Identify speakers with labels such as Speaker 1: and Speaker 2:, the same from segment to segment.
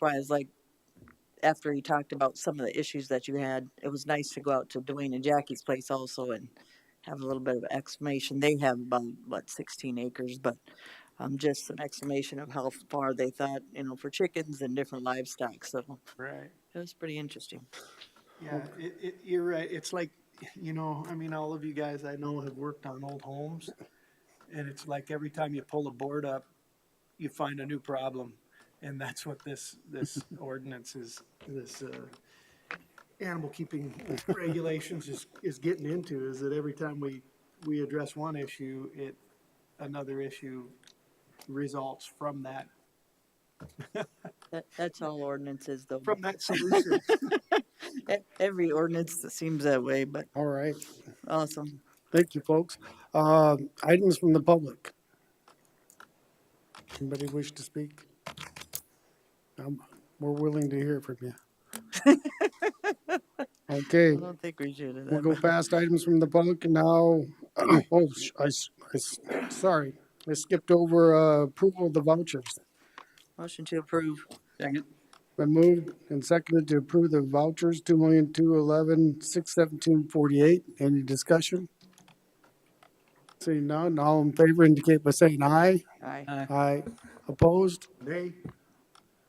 Speaker 1: why I was like, after he talked about some of the issues that you had, it was nice to go out to Dwayne and Jackie's place also and have a little bit of exclamation. They have about, what, sixteen acres, but um, just an exclamation of how far they thought, you know, for chickens and different livestock, so
Speaker 2: Right.
Speaker 1: it was pretty interesting.
Speaker 2: Yeah, it, it, you're right. It's like, you know, I mean, all of you guys I know have worked on old homes. And it's like every time you pull a board up, you find a new problem. And that's what this, this ordinance is, this, uh, animal keeping regulations is, is getting into is that every time we, we address one issue, it, another issue results from that,
Speaker 1: That, that's all ordinances though.
Speaker 2: from that solution.
Speaker 1: E- Every ordinance seems that way, but
Speaker 3: All right.
Speaker 1: awesome.
Speaker 3: Thank you, folks. Uh, items from the public. Anybody wish to speak? Um, we're willing to hear from you. Okay,
Speaker 1: I don't think we should have.
Speaker 3: we'll
Speaker 1: that
Speaker 3: go
Speaker 1: much.
Speaker 3: past items from the public and now. Oh, sh- I, s- I s- sorry, I skipped over, uh, approval of the vouchers.
Speaker 1: Motion to approve.
Speaker 3: Been moved and seconded to approve the vouchers, two million, two eleven, six seventeen, forty-eight. Any discussion? Seeing none, all in favor indicate by saying aye.
Speaker 1: Aye.
Speaker 3: Aye. Opposed?
Speaker 2: Nay,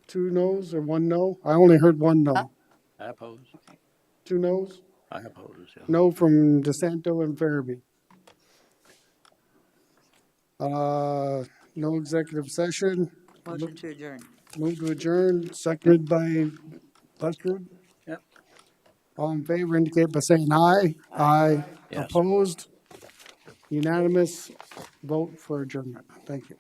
Speaker 3: Two noes or one no? I only heard one no.
Speaker 4: I oppose.
Speaker 3: Two noes?
Speaker 4: I oppose, yeah.
Speaker 3: No from DeSanto and Farabee. Uh, no executive session.
Speaker 1: Motion to adjourn.
Speaker 3: Move to adjourn, seconded by Luttrell.
Speaker 4: Yep.
Speaker 3: All in favor indicate by saying aye. Aye.
Speaker 4: Yes.
Speaker 3: Opposed? Unanimous vote for adjournment. Thank you.